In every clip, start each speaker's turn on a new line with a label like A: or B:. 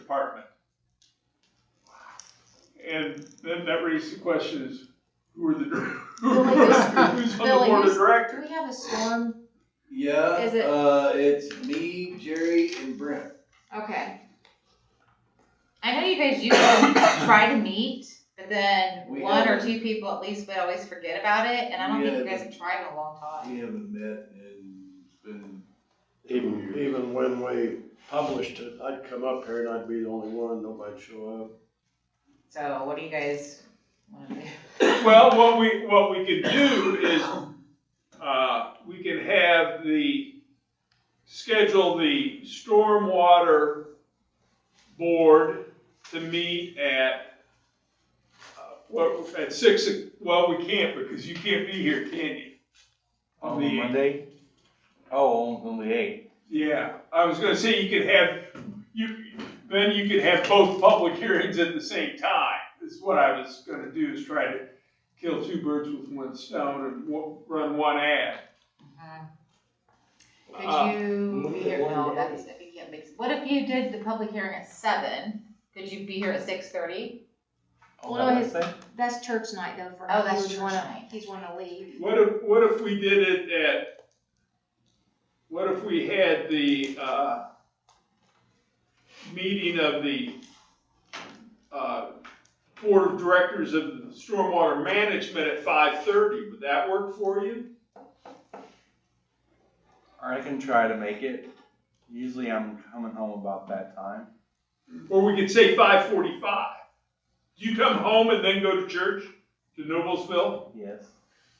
A: department. And then that raises the question is, who are the, dir- who- who's on the
B: Billy,
A: board of
B: who's-
A: directors?
B: Do we have a storm?
C: Yeah,
B: Is it-
C: uh, it's me, Jerry, and Brent.
B: Okay. I know you guys usually try to meet, but then
C: We
B: one or
C: haven't.
B: two people at least would always forget about it, and I don't
C: We
B: think you guys
C: haven't.
B: have tried in a long time.
C: We haven't met and it's been,
D: Even, even when we published it, I'd come up here and I'd be the only one, nobody'd show up.
B: So what do you guys want to do?
A: Well, what we, what we could do is, uh, we can have the, schedule the stormwater board to meet at, uh, what, at six, o- well, we can't because you can't be here, can you? On the
E: On Monday? Oh, on- on the eighth.
A: Yeah, I was gonna say you could have, you, then you could have both public hearings at the same time. Is what I was gonna do, is try to kill two birds with one stone and wo- run one ad.
B: Uh,
A: Uh,
B: Could you be
D: look at
B: here,
D: one
B: no,
D: day.
B: that's, if you can't make, what if you did the public hearing at seven? Could you be here at six thirty?
E: On
F: Well,
E: that
F: no, his-
E: Wednesday?
F: That's church night though for him.
B: Oh, that's
F: He would
B: church
F: wanna-
B: night.
F: He's wanna leave.
A: What if, what if we did it at, what if we had the, uh, meeting of the, uh, board of directors of the stormwater management at five thirty? Would that work for you?
E: Alright, I can try to make it. Usually I'm coming home about that time.
A: Or we could say five forty-five. Do you come home and then go to church to Noblesville?
E: Yes.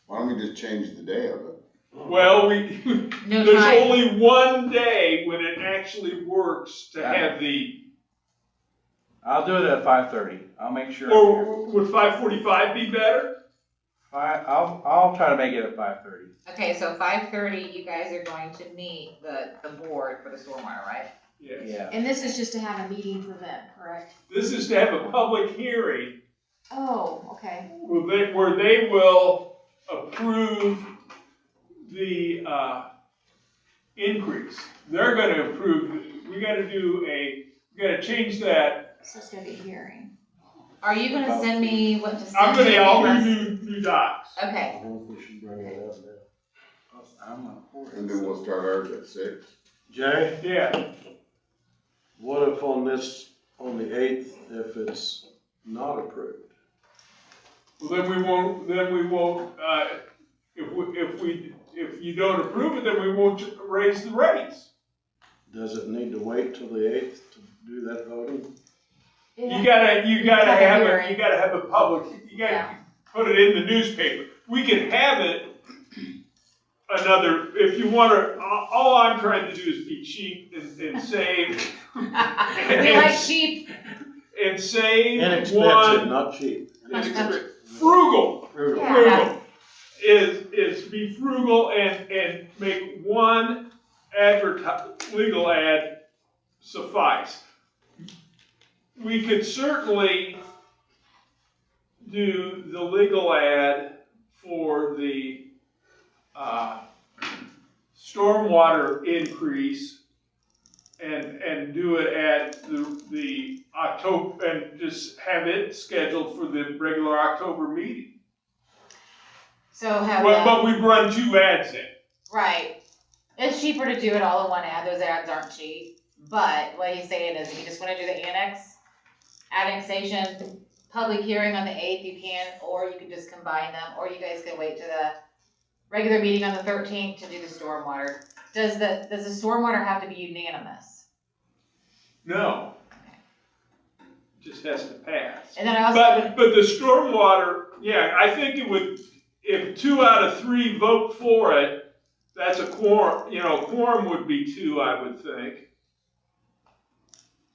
G: Why don't we just change the day of it?
A: Well, we,
B: No
A: there's
B: time.
A: only one day when it actually works to have the,
E: I'll do it at five thirty. I'll make sure. I'm here.
A: or would five forty-five be better?
E: Fi- I'll, I'll try to make it at five thirty.
B: Okay, so five thirty, you guys are going to meet the, the board for the stormwater, right?
A: Yes.
E: Yeah.
F: And this is just to have a meeting for them, correct?
A: This is to have a public hearing
F: Oh, okay.
A: where they, where they will approve the, uh, increase. They're gonna approve, we gotta do a, we gotta change that
F: So it's gonna be a hearing.
B: Are you gonna send me what to send?
A: I'm gonna,
B: me?
A: I'll do new, new docs.
D: I
B: Okay,
D: think we should bring that up now.
E: I'm a horse.
G: And then we'll start ours at six.
D: Jay,
A: Yeah,
D: what if on this, on the eighth, if it's not approved?
A: well, then we won't, then we won't, uh, if we, if we, if you don't approve it, then we won't raise the rates.
D: Does it need to wait till the eighth to do that voting?
A: You gotta, you gotta
F: Public
A: have a,
F: hearing.
A: you gotta have a public, you gotta
B: Yeah.
A: put it in the newspaper. We can have it another, if you wanna, all all I'm trying to do is be cheap and, and save,
B: we like sheep,
A: and save
D: Inexpensive,
A: one.
D: not cheap.
A: Inexpensive. Frugal.
D: Frugal.
F: Yeah.
A: frugal is, is be frugal and, and make one adverti- legal ad suffice. We could certainly do the legal ad for the, uh, stormwater increase and, and do it at the, the October, and just have it scheduled for the regular October meeting.
B: so have
A: Well,
B: a,
A: but we run two ads in.
B: right. It's cheaper to do it all in one ad, those ads aren't cheap, but what he's saying is if you just wanna do the annex, annexation, public hearing on the eighth, you can, or you can just combine them, or you guys can wait to the regular meeting on the thirteenth to do the stormwater. Does the, does the stormwater have to be unanimous?
A: No. Just has to pass.
B: And then I also,
A: But, but the stormwater, yeah, I think it would, if two out of three vote for it, that's a quorum, you know, quorum would be two, I would think.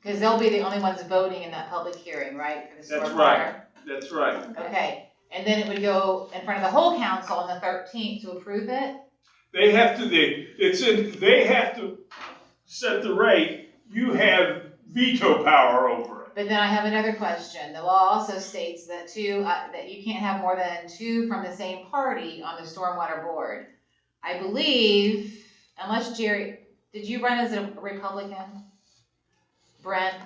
B: cause they'll be the only ones voting in that public hearing, right? for the
A: That's
B: stormwater?
A: right. That's right.
B: Okay, and then it would go in front of the whole council on the thirteenth to approve it?
A: They have to, they, it's in, they have to set the rate. You have veto power over it.
B: But then I have another question. The law also states that two, uh, that you can't have more than two from the same party on the stormwater board. I believe, unless Jerry, did you run as a Republican? Brent,